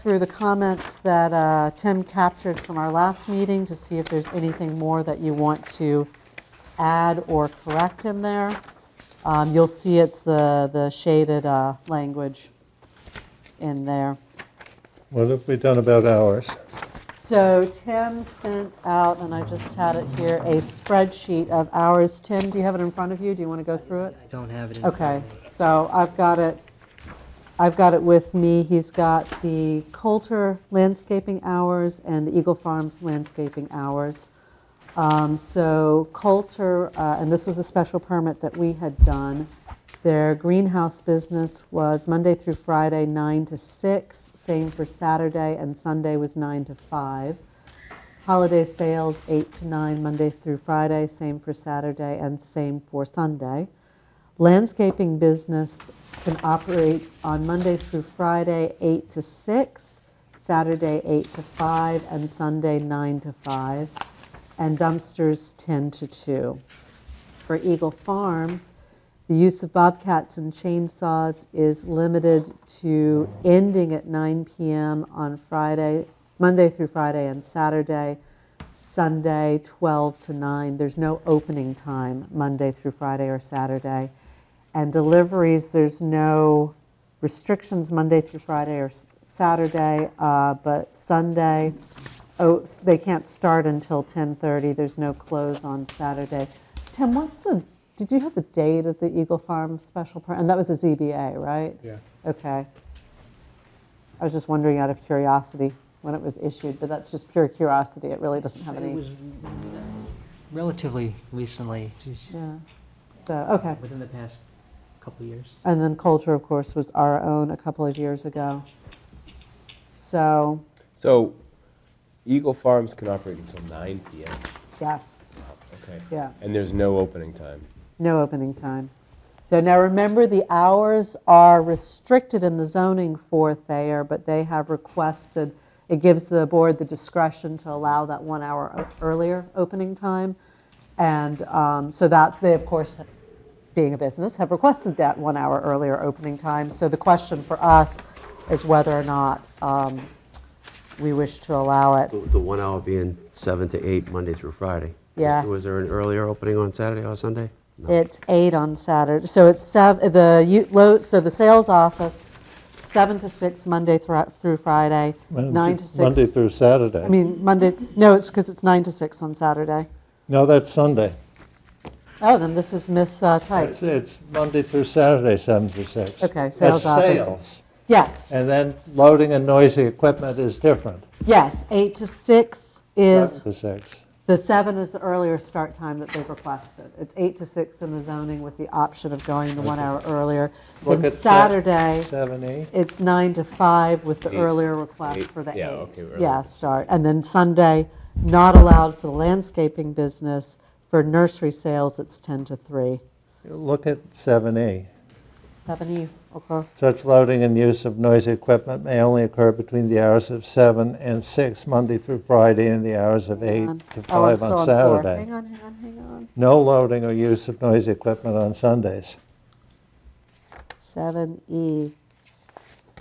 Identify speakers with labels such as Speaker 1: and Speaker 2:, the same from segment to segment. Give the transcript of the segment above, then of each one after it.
Speaker 1: through the comments that uh, Tim captured from our last meeting to see if there's anything more that you want to add or correct in there. Um, You'll see it's the the shaded uh, language in there.
Speaker 2: What have we done about hours?
Speaker 1: So Tim sent out, and I just had it here, a spreadsheet of hours. Tim, do you have it in front of you? Do you want to go through it?
Speaker 3: I don't have it in.
Speaker 1: Okay, so I've got it, I've got it with me. He's got the Coulter landscaping hours and the Eagle Farms landscaping hours. Um, So Coulter, uh, and this was a special permit that we had done, their greenhouse business was Monday through Friday, 9 to 6, same for Saturday, and Sunday was 9 to 5. Holiday sales, 8 to 9, Monday through Friday, same for Saturday, and same for Sunday. Landscaping business can operate on Monday through Friday, 8 to 6, Saturday, 8 to 5, and Sunday, 9 to 5, and dumpsters, 10 to 2. For Eagle Farms, the use of bobcats and chainsaws is limited to ending at 9 PM on Friday, Monday through Friday, and Saturday, Sunday, 12 to 9. There's no opening time, Monday through Friday or Saturday. And deliveries, there's no restrictions Monday through Friday or s- Saturday, uh, but Sunday, oh, s- they can't start until 10:30. There's no close on Saturday. Tim, what's the, did you have the date of the Eagle Farm special permit? And that was a ZBA, right?
Speaker 2: Yeah.
Speaker 1: Okay. I was just wondering out of curiosity when it was issued, but that's just pure curiosity. It really doesn't have
Speaker 3: It
Speaker 1: any,
Speaker 3: was relatively recently, just
Speaker 1: yeah. So, okay.
Speaker 3: within the past couple years.
Speaker 1: And then culture, of course, was our own a couple of years ago. So,
Speaker 4: So Eagle Farms can operate until 9 PM.
Speaker 1: yes,
Speaker 4: Okay.
Speaker 1: yeah,
Speaker 4: And there's no opening time.
Speaker 1: no opening time. So now remember, the hours are restricted in the zoning for Thayer, but they have requested, it gives the board the discretion to allow that one hour o- earlier opening time. And um, so that, they, of course, being a business, have requested that one hour earlier opening time. So the question for us is whether or not um, we wish to allow it.
Speaker 5: The the one hour being seven to eight, Monday through Friday. Was-
Speaker 1: Yeah.
Speaker 5: Was there an earlier opening on Saturday or Sunday? No.
Speaker 1: It's eight on Saturday, so it's seven, the, u- lo- so the sales office, seven to six, Monday thro- through Friday, nine to
Speaker 2: Monday
Speaker 1: six.
Speaker 2: through Saturday.
Speaker 1: I mean, Monday, no, it's because it's nine to six on Saturday.
Speaker 2: No, that's Sunday.
Speaker 1: Oh, then this is Miss uh, Tite.
Speaker 2: It's, it's Monday through Saturday, seven to six.
Speaker 1: Okay,
Speaker 2: That's
Speaker 1: sales office.
Speaker 2: sales.
Speaker 1: Yes,
Speaker 2: And then loading and noisy equipment is different.
Speaker 1: yes, eight to six is,
Speaker 2: Seven to six.
Speaker 1: the seven is the earlier start time that they've requested. It's eight to six in the zoning with the option of going the one hour earlier.
Speaker 2: Look
Speaker 1: Then
Speaker 2: at that.
Speaker 1: Saturday.
Speaker 2: Seven E.
Speaker 1: It's nine to five with the
Speaker 4: Eight.
Speaker 1: earlier request
Speaker 4: Eight.
Speaker 1: for the eight.
Speaker 4: Yeah, okay, earlier.
Speaker 1: Yeah, start. And then Sunday, not allowed for the landscaping business. For nursery sales, it's 10 to 3.
Speaker 2: Look at seven E.
Speaker 1: 7E, E, okay.
Speaker 2: Such loading and use of noisy equipment may only occur between the hours of seven and six, Monday through Friday, and the hours of eight
Speaker 1: On-
Speaker 2: to
Speaker 1: Oh, I'm
Speaker 2: five
Speaker 1: still
Speaker 2: on
Speaker 1: on four.
Speaker 2: Saturday.
Speaker 1: Hang on, hang on, hang on.
Speaker 2: No loading or use of noisy equipment on Sundays.
Speaker 1: 7E. E.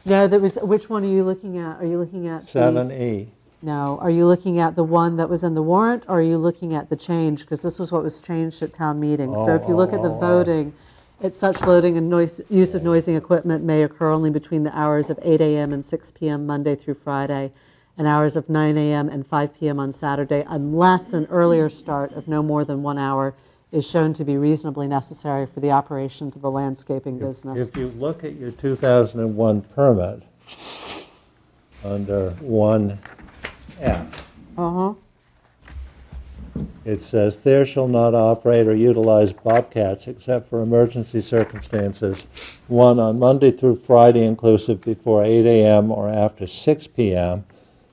Speaker 1: No, that was, which one are you looking at? Are you looking at? the-
Speaker 2: Seven E.
Speaker 1: No, are you looking at the one that was in the warrant, or are you looking at the change? Because this was what was changed at town meeting. So if you look at the
Speaker 2: Oh.
Speaker 1: voting, it's such loading and noise, use of noisy equipment may occur only between the hours of 8 AM and 6 PM Monday through Friday, and hours of 9 AM and 5 PM on Saturday, unless an earlier start of no more than one hour is shown to be reasonably necessary for the operations of the landscaping business.
Speaker 2: If you look at your 2001 permit, under 1F,
Speaker 1: Uh-huh,
Speaker 2: it says, "There shall not operate or utilize bobcats except for emergency circumstances, one on Monday through Friday inclusive before 8 a.m. or after 6 p.m.,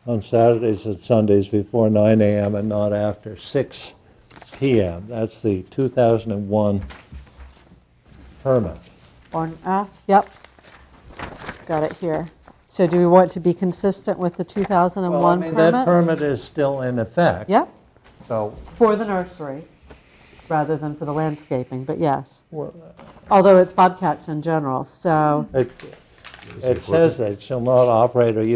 Speaker 2: on Saturdays and Sundays before 9 a.m. and not after 6 p.m." That's the 2001 permit.
Speaker 1: on F, yep. Got it here. So do we want to be consistent with the
Speaker 2: Well, I
Speaker 1: 2001
Speaker 2: mean, that
Speaker 1: permit?
Speaker 2: permit is still in effect.
Speaker 1: Yep,
Speaker 2: So
Speaker 1: for the nursery, rather than for the landscaping, but yes.
Speaker 2: Well, uh,
Speaker 1: Although it's bobcats in general, so.
Speaker 2: It it says that shall not operate or